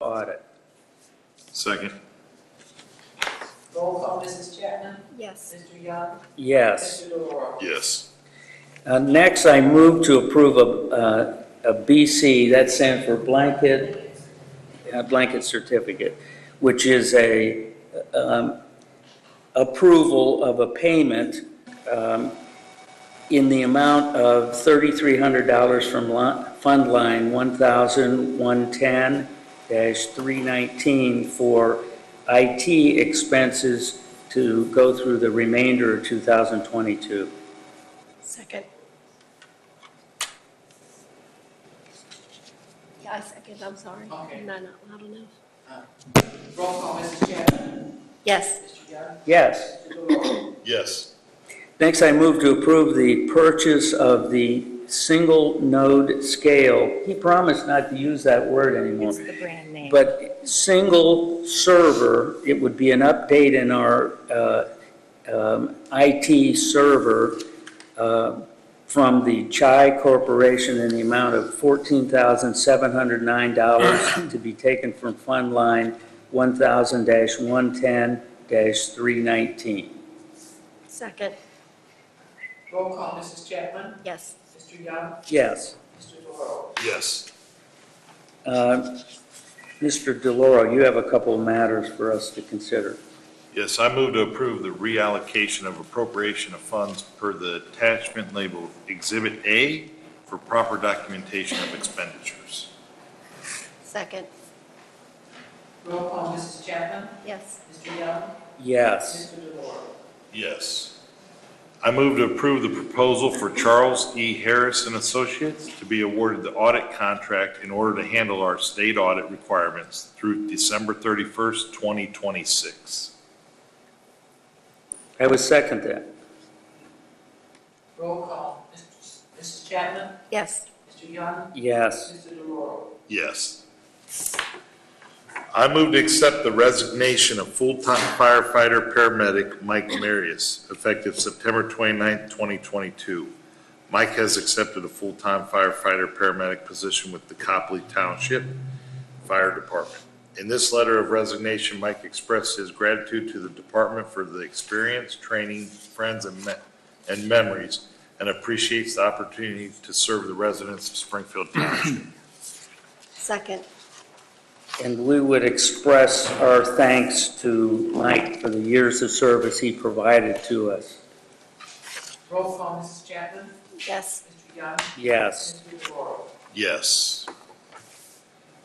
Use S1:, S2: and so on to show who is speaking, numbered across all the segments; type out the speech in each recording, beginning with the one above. S1: audit.
S2: Second.
S3: Roll call, Mrs. Chapman?
S4: Yes.
S3: Mr. Young?
S1: Yes.
S3: Mr. Delora?
S2: Yes.
S1: Uh, Next, I move to approve a uh, a BC, that stands for blanket, uh, blanket certificate, which is a um, approval of a payment um, in the amount of $3,300 from li- Fund Line 1,110-319 for IT expenses to go through the remainder of 2022.
S4: Second. Yeah, I second, I'm sorry.
S3: Okay.
S4: I'm not loud enough.
S3: Roll call, Mrs. Chapman?
S4: Yes.
S3: Mr. Young?
S1: Yes.
S3: Mr. Delora?
S2: Yes.
S1: Next, I move to approve the purchase of the single node scale. He promised not to use that word anymore.
S5: It's the brand name.
S1: But single server, it would be an update in our uh, um, IT server uh, from the Chai Corporation in the amount of $14,709 to be taken from Fund Line 1,000-110-319.
S4: Second.
S3: Roll call, Mrs. Chapman?
S4: Yes.
S3: Mr. Young?
S1: Yes.
S3: Mr. Delora?
S2: Yes.
S1: Uh, Mr. DeLauro, you have a couple of matters for us to consider.
S2: Yes, I move to approve the reallocation of appropriation of funds per the attachment labeled Exhibit A for proper documentation of expenditures.
S4: Second.
S3: Roll call, Mrs. Chapman?
S4: Yes.
S3: Mr. Young?
S1: Yes.
S3: Mr. Delora?
S2: Yes. I move to approve the proposal for Charles E. Harris and Associates to be awarded the audit contract in order to handle our state audit requirements through December 31st, 2026.
S1: I would second that.
S3: Roll call, Mrs. Mrs. Chapman?
S4: Yes.
S3: Mr. Young?
S1: Yes.
S3: Mr. Delora?
S2: Yes. I move to accept the resignation of full-time firefighter paramedic Mike Marius, effective September 29th, 2022. Mike has accepted a full-time firefighter paramedic position with the Copley Township Fire Department. In this letter of resignation, Mike expressed his gratitude to the department for the experience, training, friends, and me- and memories, and appreciates the opportunity to serve the residents of Springfield Township.
S4: Second.
S1: And we would express our thanks to Mike for the years of service he provided to us.
S3: Roll call, Mrs. Chapman?
S4: Yes.
S3: Mr. Young?
S1: Yes.
S3: Mr. Delora?
S2: Yes.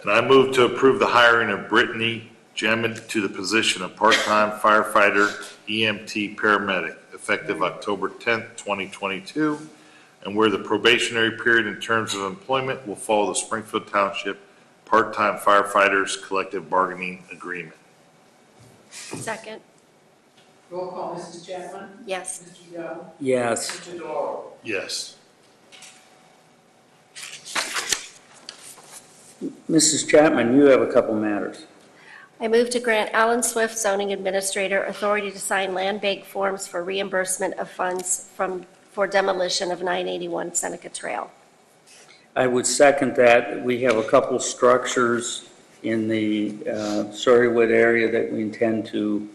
S2: And I move to approve the hiring of Brittany Gemmett to the position of part-time firefighter EMT paramedic, effective October 10th, 2022, and where the probationary period in terms of employment will follow the Springfield Township Part-Time Firefighters Collective Bargaining Agreement.
S4: Second.
S3: Roll call, Mrs. Chapman?
S4: Yes.
S3: Mr. Young?
S1: Yes.
S3: Mr. Delora?
S2: Yes.
S1: Mrs. Chapman, you have a couple matters.
S4: I move to grant Alan Swift zoning administrator authority to sign land bank forms for reimbursement of funds from, for demolition of 981 Seneca Trail.
S1: I would second that. We have a couple structures in the uh, Surreywood area that we intend to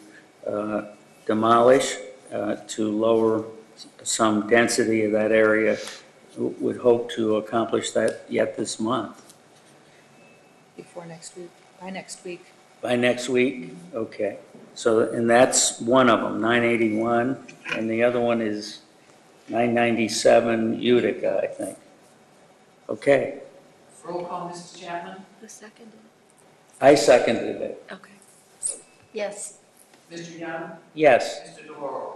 S1: uh, demolish uh, to lower some density of that area. Would hope to accomplish that yet this month.
S5: Before next week, by next week.
S1: By next week? Okay. So, and that's one of them, 981, and the other one is 997 Utica, I think. Okay,
S3: Roll call, Mrs. Chapman?
S4: Who seconded?
S1: I seconded it.
S4: Okay. Yes.
S3: Mr. Young?
S1: Yes,
S3: Mr. DeLauro?